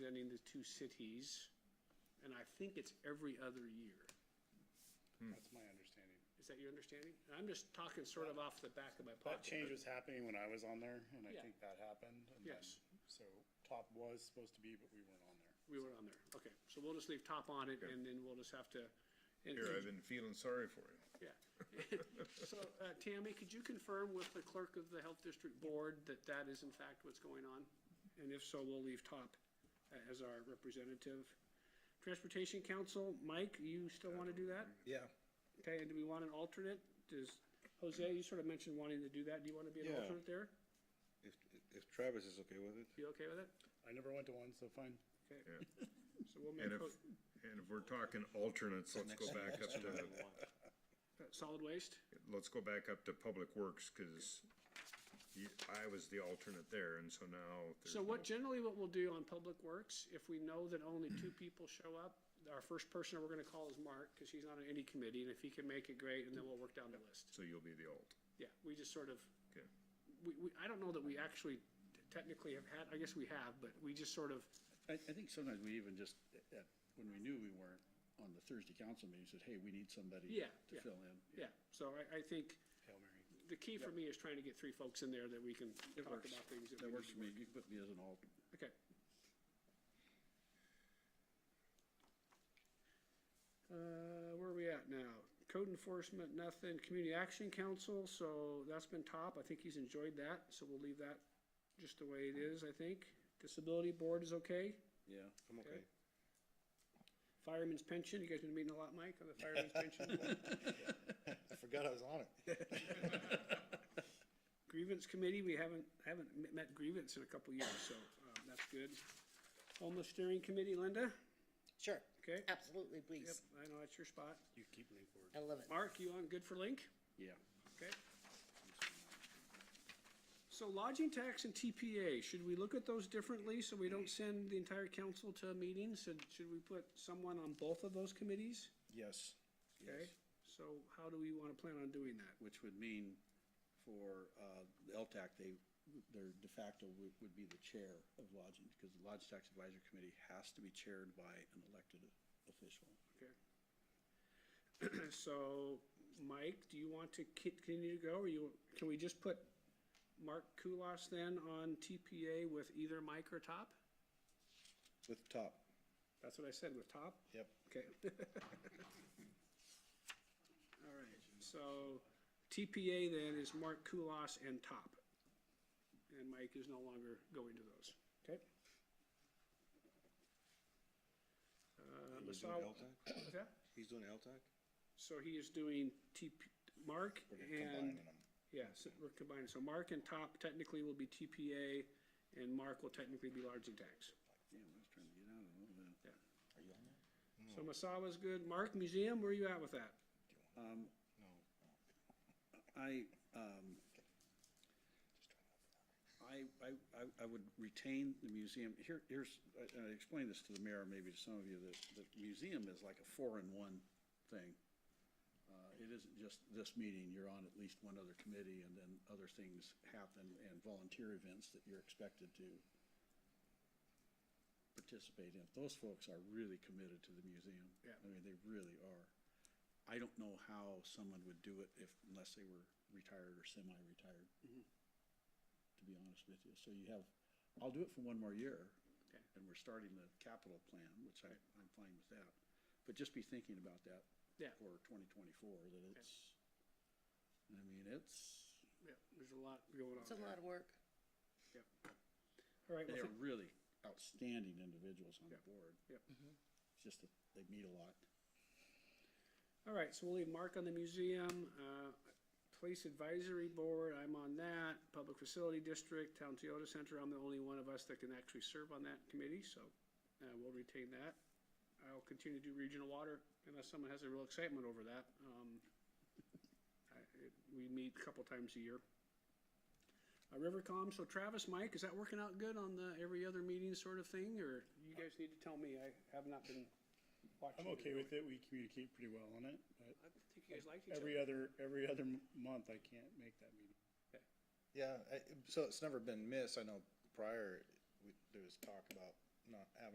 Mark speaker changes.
Speaker 1: two cities, and I think it's every other year.
Speaker 2: That's my understanding.
Speaker 1: Is that your understanding? And I'm just talking sort of off the back of my
Speaker 2: That
Speaker 1: pocket.
Speaker 2: change was happening when I was on there, and I
Speaker 1: Yeah.
Speaker 2: think that happened. and then-
Speaker 1: Yes.
Speaker 2: So top was supposed to be, but we weren't on there.
Speaker 1: We were on there. Okay, so we'll just leave top on it and then we'll just have to. and-
Speaker 3: Here, I've been feeling sorry for you.
Speaker 1: Yeah. So, uh, Tammy, could you confirm with the clerk of the Health District Board that that is in fact what's going on? And if so, we'll leave Top uh, as our representative. Transportation Council, Mike, you still want to do that?
Speaker 4: Yeah.
Speaker 1: Okay, and do we want an alternate? Does, Jose, you sort of mentioned wanting to do that. Do you want to be an
Speaker 4: Yeah.
Speaker 1: alternate there?
Speaker 4: If, if Travis is okay with it.
Speaker 1: You okay with it?
Speaker 2: I never went to one, so fine.
Speaker 1: Okay.
Speaker 3: Yeah.
Speaker 1: So we'll make,
Speaker 3: And if,
Speaker 1: ho-
Speaker 3: and if we're talking alternates, let's go back up to,
Speaker 1: uh, solid waste?
Speaker 3: let's go back up to Public Works, cause you, I was the alternate there, and so now. there's
Speaker 1: So what,
Speaker 3: no-
Speaker 1: generally what we'll do on Public Works, if we know that only two people show up, our first person we're gonna call is Mark, cause he's not on any committee, and if he can make it, great, and then we'll work down the list.
Speaker 3: So you'll be the alt,
Speaker 1: Yeah, we just sort of,
Speaker 3: okay.
Speaker 1: we, we, I don't know that we actually technically have had, I guess we have, but we just sort of,
Speaker 5: I, I think sometimes we even just, at, when we knew we weren't on the Thursday council meeting, said, hey, we need somebody
Speaker 1: Yeah,
Speaker 5: to
Speaker 1: yeah.
Speaker 5: fill in.
Speaker 1: yeah, so I, I think
Speaker 2: Hail Mary.
Speaker 1: the key for me is trying to get three folks in there that we can
Speaker 5: It
Speaker 1: talk
Speaker 5: works.
Speaker 1: about things. that
Speaker 5: That
Speaker 1: we
Speaker 5: works
Speaker 1: need
Speaker 5: for me. You can put me as an alt.
Speaker 1: to- Okay. Uh, where are we at now? Code enforcement, nothing. Community Action Council, so that's been top. I think he's enjoyed that, so we'll leave that just the way it is, I think. Disability Board is okay.
Speaker 5: Yeah.
Speaker 4: I'm okay.
Speaker 1: Fireman's Pension, you guys been meeting a lot, Mike, on the Fireman's Pension?
Speaker 4: I forgot I was on it.
Speaker 1: Grievance Committee, we haven't, haven't m- met grievance in a couple years, so, uh, that's good. Homeless Steering Committee, Linda,
Speaker 6: Sure,
Speaker 1: okay?
Speaker 6: absolutely,
Speaker 1: Yep,
Speaker 6: please.
Speaker 1: I know that's your spot.
Speaker 2: You keep me forward.
Speaker 6: I love it.
Speaker 1: Mark, you on good for link?
Speaker 5: Yeah.
Speaker 1: Okay. So lodging tax and TPA, should we look at those differently so we don't send the entire council to a meeting? Should, should we put someone on both of those committees?
Speaker 5: Yes.
Speaker 1: Okay,
Speaker 5: Yes.
Speaker 1: so how do we wanna plan on doing that?
Speaker 5: Which would mean for, uh, the LTAC, they, their de facto would, would be the chair of lodging, because the Lodge Tax Advisory Committee has to be chaired by an elected official.
Speaker 1: Okay. So, Mike, do you want to ki- continue to go, or you, can we just put Mark Kulas then on TPA with either Mike or Top?
Speaker 4: With top.
Speaker 1: That's what I said, with Top?
Speaker 4: Yep.
Speaker 1: Okay. All right, so TPA then is Mark Kulas and Top. And Mike is no longer going to those, okay? Uh,
Speaker 4: He's doing
Speaker 1: Masao-
Speaker 4: LTAC?
Speaker 1: what's that?
Speaker 4: He's doing LTAC?
Speaker 1: So he is doing TP, Mark
Speaker 4: We're
Speaker 1: and,
Speaker 4: combining them.
Speaker 1: yeah, so we're combining, so Mark and Top technically will be TPA, and Mark will technically be large and tax.
Speaker 5: Damn, I was trying to get out of all that.
Speaker 4: Are you on that?
Speaker 1: So Masawa's good, Mark, museum, where are you at with that?
Speaker 5: Um,
Speaker 4: No.
Speaker 5: I, um, I, I, I- I would retain the museum, here, here's, I, I explained this to the mayor, maybe to some of you, that the museum is like a four-in-one thing. Uh, it isn't just this meeting, you're on at least one other committee, and then other things happen, and volunteer events that you're expected to participate in. Those folks are really committed to the museum.
Speaker 1: Yeah.
Speaker 5: I mean, they really are. I don't know how someone would do it if, unless they were retired or semi-retired.
Speaker 1: Mm-hmm.
Speaker 5: To be honest with you, so you have, I'll do it for one more year.
Speaker 1: Okay.
Speaker 5: And we're starting the capital plan, which I, I'm fine with that, but just be thinking about that.
Speaker 1: Yeah.
Speaker 5: For twenty twenty-four, that it's, I mean, it's,
Speaker 1: Yeah, there's a lot going on
Speaker 6: It's a
Speaker 1: there.
Speaker 6: lot of work.
Speaker 1: All right, well,
Speaker 5: they're
Speaker 1: thank-
Speaker 5: really outstanding individuals on the board.
Speaker 1: Yep.
Speaker 5: It's just that they meet a lot.
Speaker 1: all right, so we'll leave Mark on the museum, uh, Police Advisory Board, I'm on that, Public Facility District, Town Toyota Center, I'm the only one of us that can actually serve on that committee, so, uh, we'll retain that. I'll continue to do regional water unless someone has a real excitement over that, um, I, it, we meet a couple times a year. Uh, Rivercom, so Travis, Mike, is that working out good on the every other meeting sort of thing, or you guys need to tell me, I have not been watching.
Speaker 2: I'm okay with it. We communicate pretty well on it, but
Speaker 1: I think you guys like each
Speaker 2: every
Speaker 1: other.
Speaker 2: other, every other m- month I can't make that meeting.
Speaker 4: Yeah, I, so it's never been missed. I know prior, we, there was talk about not having